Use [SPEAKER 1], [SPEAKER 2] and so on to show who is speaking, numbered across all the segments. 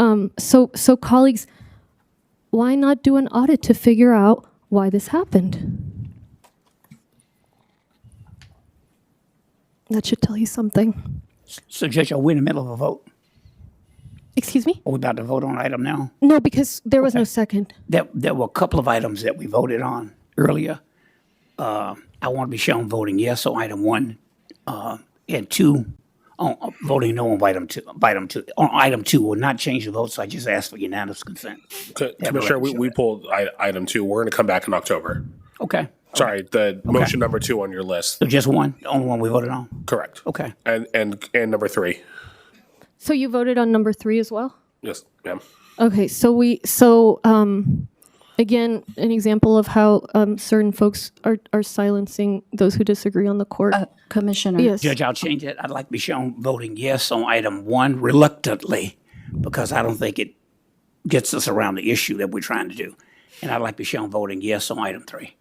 [SPEAKER 1] Um, so, so colleagues, why not do an audit to figure out why this happened? That should tell you something.
[SPEAKER 2] Suggestion, we're in the middle of a vote.
[SPEAKER 1] Excuse me?
[SPEAKER 2] Are we about to vote on an item now?
[SPEAKER 1] No, because there was no second.
[SPEAKER 2] There, there were a couple of items that we voted on earlier. Uh, I want to be shown voting yes on item one, uh, and two, on, uh, voting no on item two, item two. On item two will not change the vote, so I just ask for unanimous consent.
[SPEAKER 3] Co- Commissioner, we, we pulled i- item two. We're going to come back in October.
[SPEAKER 2] Okay,
[SPEAKER 3] Sorry, the motion number two on your list.
[SPEAKER 2] so just one, the only one we voted on?
[SPEAKER 3] Correct.
[SPEAKER 2] Okay.
[SPEAKER 3] And and and number three.
[SPEAKER 1] So you voted on number three as well?
[SPEAKER 3] Yes, ma'am.
[SPEAKER 1] Okay, so we, so, um, again, an example of how, um, certain folks are, are silencing those who disagree on the court.
[SPEAKER 4] Uh, Commissioner.
[SPEAKER 1] Yes.
[SPEAKER 2] Judge, I'll change it. I'd like to be shown voting yes on item one reluctantly, because I don't think it gets us around the issue that we're trying to do. And I'd like to be shown voting yes on item three.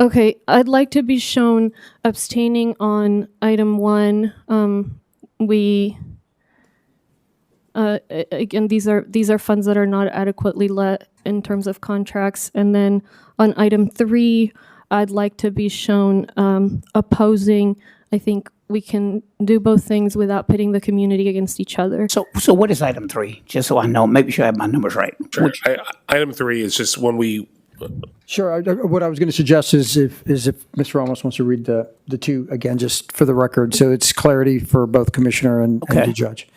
[SPEAKER 1] Okay, I'd like to be shown abstaining on item one. Um, we, uh, a- again, these are, these are funds that are not adequately let in terms of contracts. And then on item three, I'd like to be shown, um, opposing. I think we can do both things without pitting the community against each other.
[SPEAKER 2] So, so what is item three? Just so I know, make sure I have my numbers right. Which-
[SPEAKER 3] I, I- item three is just when we
[SPEAKER 5] Sure. I- I- What I was going to suggest is if, is if Ms. Ramos wants to read the, the two again, just for the record, so it's clarity for both commissioner and and
[SPEAKER 2] Okay.
[SPEAKER 5] the judge.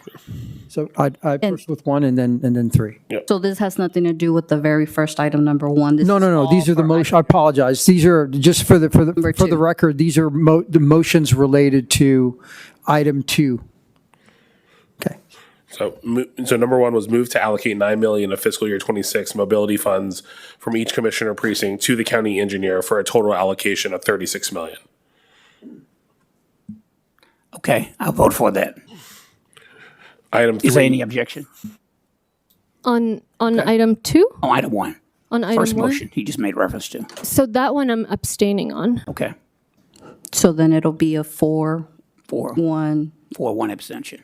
[SPEAKER 5] So I, I first with one and then, and then three.
[SPEAKER 4] So this has nothing to do with the very first item, number one.
[SPEAKER 5] No, no, no, these are the motion, I apologize. These are, just for the, for the, for
[SPEAKER 4] two.
[SPEAKER 5] the record, these are mo, the motions related to item two. Okay.
[SPEAKER 3] so mo- so number one was moved to allocate nine million of fiscal year twenty six mobility funds from each commissioner precinct to the county engineer for a total allocation of thirty six million.
[SPEAKER 2] Okay, I'll vote for that.
[SPEAKER 3] Item
[SPEAKER 2] Is there
[SPEAKER 3] three,
[SPEAKER 2] any objection?
[SPEAKER 1] On, on item two,
[SPEAKER 2] On item one,
[SPEAKER 1] on item
[SPEAKER 2] first
[SPEAKER 1] one.
[SPEAKER 2] motion he just made reference to.
[SPEAKER 1] So that one I'm abstaining on.
[SPEAKER 2] Okay,
[SPEAKER 4] So then it'll be a four,
[SPEAKER 2] four,
[SPEAKER 4] one.
[SPEAKER 2] four, one abstention.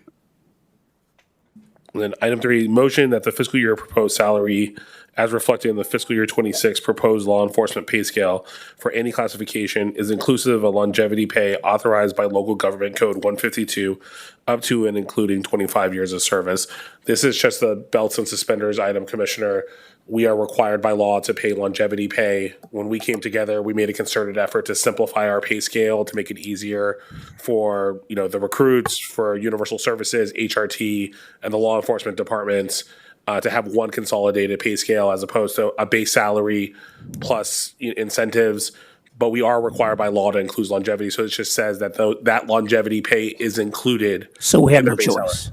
[SPEAKER 3] and then item three, motion that the fiscal year proposed salary as reflected in the fiscal year twenty six proposed law enforcement pay scale for any classification is inclusive of longevity pay authorized by local government code one fifty two up to and including twenty five years of service. This is just the belts and suspenders item, Commissioner. we are required by law to pay longevity pay. When we came together, we made a concerted effort to simplify our pay scale to make it easier for, you know, the recruits, for universal services, HRT, and the law enforcement departments uh, to have one consolidated pay scale as opposed to a base salary plus i- incentives. But we are required by law to include longevity. So it just says that tho- that longevity pay is included.
[SPEAKER 2] So we have no
[SPEAKER 3] Their base salary.
[SPEAKER 2] choice.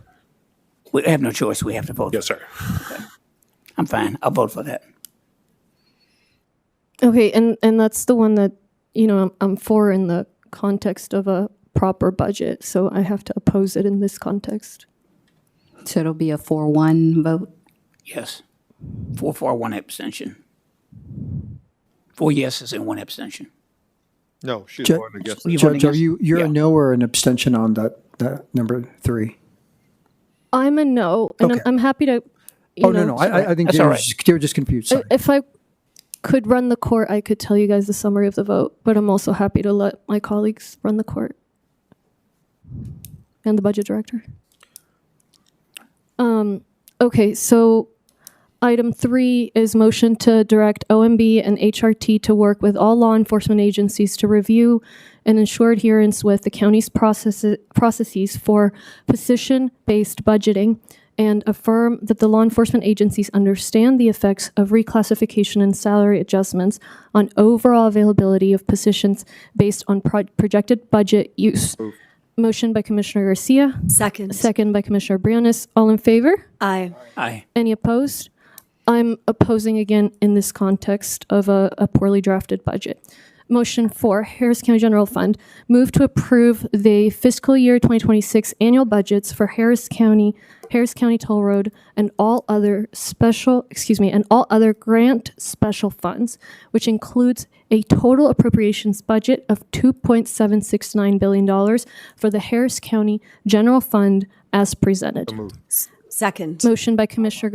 [SPEAKER 2] We have no choice. We have to vote.
[SPEAKER 3] Yes, sir.
[SPEAKER 2] I'm fine. I'll vote for that.
[SPEAKER 1] Okay, and and that's the one that you know I'm, I'm for in the context of a proper budget, so I have to oppose it in this context.
[SPEAKER 4] So it'll be a four, one vote.
[SPEAKER 2] Yes. Four for, one abstention. Four yeses and one abstention.
[SPEAKER 6] No, she's
[SPEAKER 5] Ju-
[SPEAKER 6] voting against it.
[SPEAKER 5] Judge, are you, you're
[SPEAKER 2] Yeah.
[SPEAKER 5] a no or an abstention on that, that number three?
[SPEAKER 1] I'm a no, and
[SPEAKER 5] Okay.
[SPEAKER 1] I'm, I'm happy to. You
[SPEAKER 5] Oh,
[SPEAKER 1] know,
[SPEAKER 5] no, no, I, I- I think
[SPEAKER 2] That's
[SPEAKER 5] they
[SPEAKER 2] all
[SPEAKER 5] were
[SPEAKER 2] right.
[SPEAKER 5] just- they were just confused, sorry.
[SPEAKER 1] If I could run the court, I could tell you guys the summary of the vote, but I'm also happy to let my colleagues run the court and the budget director. Um, okay, so item three is motion to direct OMB and HRT to work with all law enforcement agencies to review and ensure adherence with the county's processes, processes for position-based budgeting and affirm that the law enforcement agencies understand the effects of reclassification and salary adjustments on overall availability of positions based on pro- projected budget use. Motion by Commissioner Garcia,
[SPEAKER 7] Second.
[SPEAKER 1] second by Commissioner Briones. All in favor?
[SPEAKER 7] Aye.
[SPEAKER 2] Aye.
[SPEAKER 1] Any opposed? I'm opposing again in this context of a, a poorly drafted budget. Motion four, Harris County General Fund, move to approve the fiscal year 2026 annual budgets for Harris County, Harris County Toll Road, and all other special, excuse me, and all other grant special funds, which includes a total appropriations budget of $2.769 billion for the Harris County General Fund as presented.
[SPEAKER 6] Second.
[SPEAKER 1] Motion by Commissioner